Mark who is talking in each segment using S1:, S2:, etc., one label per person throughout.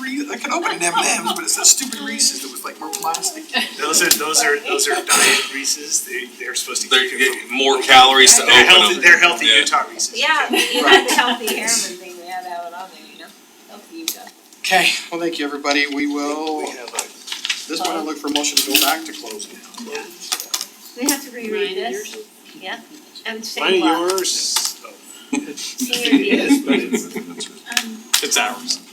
S1: I wanted M and M's, but it's that stupid Reese's that was like more plastic.
S2: Those are, those are, those are diet Reeses, they, they're supposed to
S3: They
S2: keep you
S3: get more calories to
S2: from. They're
S3: open
S2: healthy,
S3: them.
S2: they're healthy
S3: Yeah.
S2: Utah Reeses.
S4: Yeah, you had the healthy airman thing, they had to have it on there, you know, healthy Utah.
S5: Okay, well, thank you, everybody, we will,
S1: We have
S2: uh,
S1: a
S5: this one I look for motion to go back to close now.
S4: We have to reread this, yeah, and
S2: Mine
S4: same
S2: and
S4: law.
S2: yours, oh,
S4: Senior
S2: it
S4: year.
S2: is, but it's,
S4: Um,
S3: It's ours.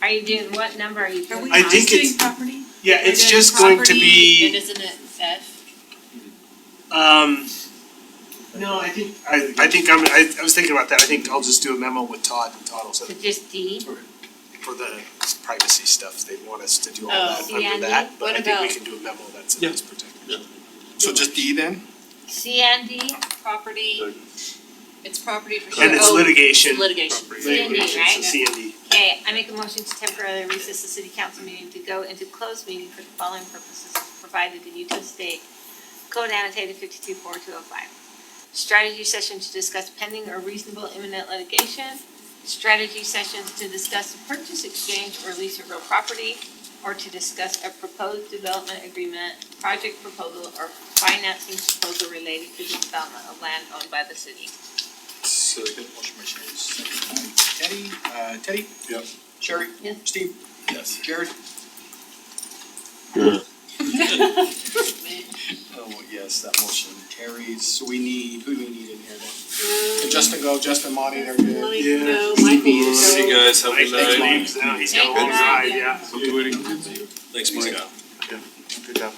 S4: Are you doing, what number are you doing?
S2: I think it's-
S6: property?
S2: yeah, it's just going to
S6: And
S2: be,
S6: isn't it F?
S2: um, no, I think, um, I, I think I'm, I, I was thinking about that, I think I'll just do a memo with Todd and Todd will
S4: So
S2: send it
S4: just D,
S2: for the privacy stuff, they want us to do all
S6: Oh.
S2: that
S4: CND?
S2: under that, but I
S6: What
S2: think we
S6: about-
S2: can do a memo that's in this particular.
S5: So just D then?
S4: C and D,
S6: Property, it's property for.
S2: And it's
S6: oh,
S2: litigation.
S6: Litigation.
S4: C and D,
S2: Litigation,
S4: right?
S2: so CND.
S4: Okay, I make a motion to temporarily recess the city council meeting to go into closed meeting for the following purposes provided in Utah State Code annotated fifty-two four two oh five. Strategy session to discuss pending or reasonable imminent litigation. Strategy sessions to discuss the purchase, exchange, or lease of real property, or to discuss a proposed development agreement, project proposal, or financing proposal related to the development of land owned by the city.
S5: Second. Motion by Sherry, second by Teddy, uh, Teddy? Yep. Sherry?
S4: Yeah.
S5: Steve?
S3: Yes.
S5: Jared?
S6: Man.
S5: Oh, yes, that motion carries, so we need, who do we need in here then? Can Justin go, Justin, Monty, they're good.
S2: Yeah.
S3: See you guys, have a
S2: Mike,
S3: good
S2: thanks,
S3: night.
S2: Mike. No, he's got a
S4: Thank
S2: long
S4: you.
S2: ride, yeah.
S3: Thanks, Mike.
S2: Good job.